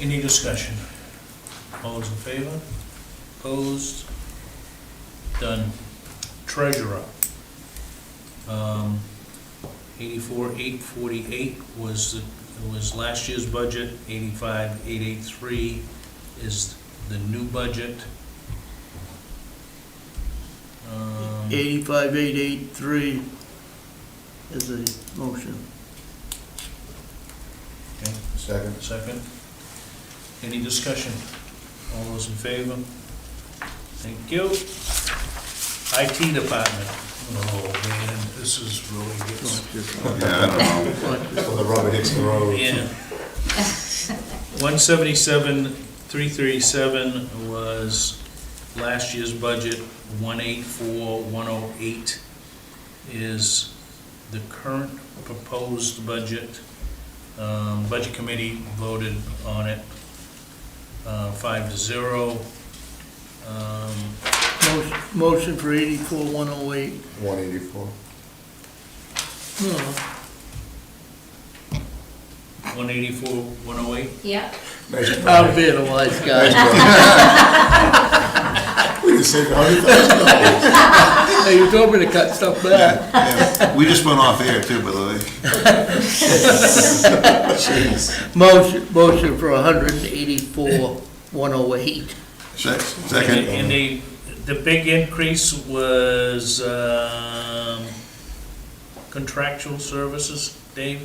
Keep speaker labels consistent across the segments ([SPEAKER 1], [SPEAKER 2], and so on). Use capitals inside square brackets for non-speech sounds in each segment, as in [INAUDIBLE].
[SPEAKER 1] Any discussion? All those in favor? Opposed? Done. Treasurer. Um, Eighty-four, eight forty-eight was, the- was last year's budget. Eighty-five, eight eight-three is the new budget. Um,
[SPEAKER 2] Eighty-five, eight, eight, three is a motion.
[SPEAKER 1] okay.
[SPEAKER 3] Second.
[SPEAKER 1] Second. Any discussion? All those in favor? Thank you. IT department. Oh, man, this is really good.
[SPEAKER 3] Yeah, I don't know. Well, the rubber hits the road.
[SPEAKER 1] Yeah. One seventy-seven, three thirty-seven was last year's budget. One eight four, one oh eight is the current proposed budget. Um, Budget Committee voted on it uh, five to zero. Um,
[SPEAKER 2] Motion- Motion for eighty-four, one oh eight.
[SPEAKER 3] One eighty-four.
[SPEAKER 2] No,
[SPEAKER 1] 184, 108,
[SPEAKER 4] Yeah,
[SPEAKER 3] Nice
[SPEAKER 1] Oh,
[SPEAKER 3] try.
[SPEAKER 2] I'm being a wise
[SPEAKER 3] Nice
[SPEAKER 2] guy.
[SPEAKER 3] try. We just saved a hundred thousand dollars.
[SPEAKER 2] Hey, you told me to cut stuff back.
[SPEAKER 5] Yeah, We just went off air too, by the way.
[SPEAKER 2] Motion, motion for hundred and eighty-four, one oh eight.
[SPEAKER 5] Sec-
[SPEAKER 1] And
[SPEAKER 5] Second,
[SPEAKER 1] and the, the big increase was um, contractual services, Dave,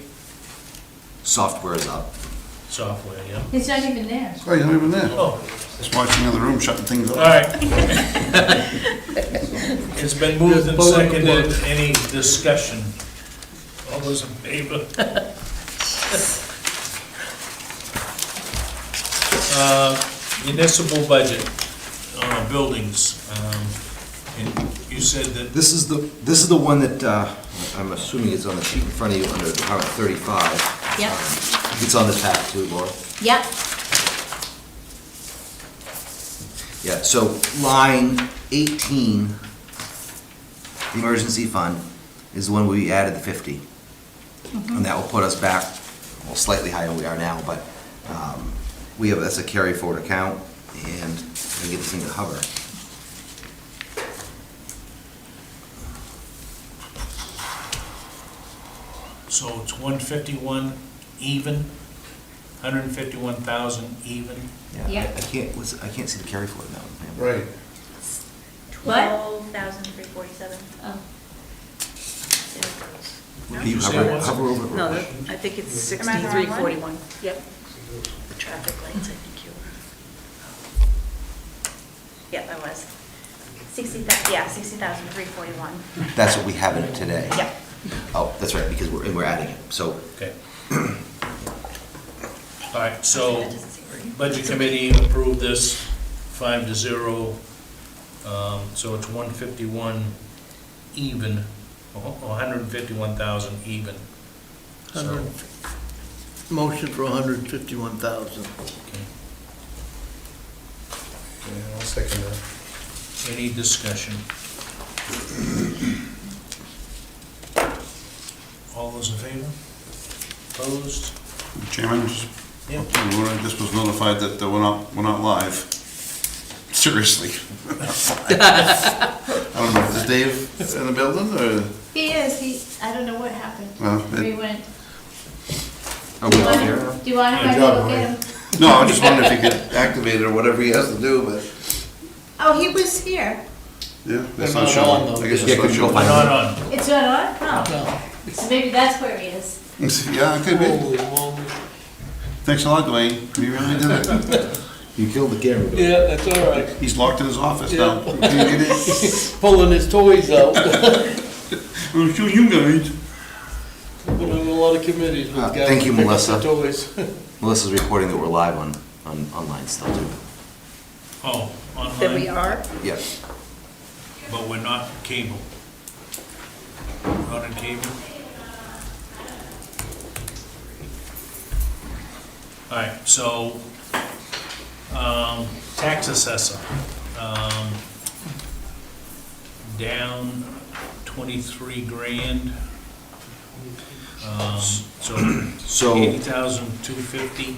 [SPEAKER 6] Software is up.
[SPEAKER 1] software, yeah.
[SPEAKER 4] it's not even there.
[SPEAKER 5] oh, you're not even there.
[SPEAKER 1] Oh,
[SPEAKER 5] Just watching the other room, shutting things
[SPEAKER 1] all
[SPEAKER 5] off.
[SPEAKER 1] right. It's been moved and
[SPEAKER 2] Just pull it
[SPEAKER 1] seconded,
[SPEAKER 2] apart.
[SPEAKER 1] any discussion? All those in favor? Uh, Municipal budget, uh, buildings, um, and you said that,
[SPEAKER 6] This is the, this is the one that, uh, I'm assuming is on the sheet in front of you under Department 35.
[SPEAKER 4] Yep,
[SPEAKER 6] It's on the tab too, Laura.
[SPEAKER 4] yep,
[SPEAKER 6] Yeah, so line 18, the emergency fund, is the one we added the 50. And that will put us back, well, slightly higher than we are now, but um, we have, that's a carry forward account, and we get this thing to hover.
[SPEAKER 1] so it's one fifty-one even, hundred and fifty-one thousand even.
[SPEAKER 6] I-
[SPEAKER 4] Yeah.
[SPEAKER 6] I can't, what's- I can't see the carry forward in that one.
[SPEAKER 3] Right.
[SPEAKER 4] What?
[SPEAKER 7] Twelve thousand three forty-seven.
[SPEAKER 4] Oh.
[SPEAKER 6] Can you
[SPEAKER 1] Did you say it
[SPEAKER 6] hover,
[SPEAKER 1] was?
[SPEAKER 6] hover over it?
[SPEAKER 8] No, that- I think it's
[SPEAKER 7] Am I the
[SPEAKER 8] sixty-three
[SPEAKER 7] wrong one?
[SPEAKER 8] forty-one.
[SPEAKER 7] Yep. The traffic lights, I think you were. Yep, I was. Sixty thou, yeah, sixty thousand three forty-one.
[SPEAKER 6] That's what we have in it today.
[SPEAKER 7] Yep.
[SPEAKER 6] Oh, that's right, because we're, and we're adding it, so
[SPEAKER 1] Okay. All right, so
[SPEAKER 7] That doesn't seem right.
[SPEAKER 1] Budget Committee approved this five to zero, um, so it's one fifty-one even, oh, hundred and fifty-one thousand even. So,
[SPEAKER 2] Hundred, motion for hundred and fifty-one thousand.
[SPEAKER 1] okay.
[SPEAKER 3] Yeah, I'll second that.
[SPEAKER 1] Any discussion? All those in favor? Opposed?
[SPEAKER 5] Chairman, just-
[SPEAKER 1] Yeah.
[SPEAKER 5] Laura just was notified that uh, we're not, we're not live. Seriously. [LAUGHS] I don't know, is Dave in the building or, uh,
[SPEAKER 4] He is, he, I don't know what happened.
[SPEAKER 5] well,
[SPEAKER 4] We
[SPEAKER 5] it-
[SPEAKER 4] went,
[SPEAKER 6] are
[SPEAKER 4] do
[SPEAKER 6] we
[SPEAKER 4] you
[SPEAKER 6] all
[SPEAKER 4] want
[SPEAKER 6] here?
[SPEAKER 4] him, do you want him
[SPEAKER 3] Good
[SPEAKER 4] to
[SPEAKER 3] job,
[SPEAKER 4] look
[SPEAKER 3] Maria.
[SPEAKER 4] at him?
[SPEAKER 5] no, I just wondered if he could activate it or whatever he has to do, but,
[SPEAKER 4] Oh, he was here.
[SPEAKER 5] yeah,
[SPEAKER 2] They're
[SPEAKER 5] that's
[SPEAKER 2] not
[SPEAKER 5] not
[SPEAKER 2] on,
[SPEAKER 5] showing.
[SPEAKER 2] though.
[SPEAKER 5] I guess it's
[SPEAKER 6] Yeah,
[SPEAKER 5] not
[SPEAKER 6] could you go
[SPEAKER 5] showing.
[SPEAKER 6] find
[SPEAKER 1] Not on.
[SPEAKER 4] It's not on? No.
[SPEAKER 2] No.
[SPEAKER 4] So maybe that's where he is.
[SPEAKER 5] [LAUGHS] Yeah, it could be. Thanks a lot, Dwayne. You really did it.
[SPEAKER 6] You killed the camera. Bill.
[SPEAKER 2] Yeah, that's all right.
[SPEAKER 5] He's locked in his office now. Can you get in?
[SPEAKER 6] [LAUGHS]
[SPEAKER 2] Pulling his toys out.
[SPEAKER 5] I'm sure you guys.
[SPEAKER 2] Been on a lot of committees with
[SPEAKER 6] Uh,
[SPEAKER 2] guys.
[SPEAKER 6] thank you,
[SPEAKER 2] who pick up
[SPEAKER 6] Melissa.
[SPEAKER 2] the Toys.
[SPEAKER 6] Melissa's recording that we're live on, on, online still too.
[SPEAKER 1] Oh,
[SPEAKER 8] That we
[SPEAKER 1] online,
[SPEAKER 8] are?
[SPEAKER 6] Yeah,
[SPEAKER 1] but we're not cable. Not on cable. All right, so, um, tax assessor, um, down twenty-three grand. Um, so
[SPEAKER 6] So-
[SPEAKER 1] eighty thousand two fifty.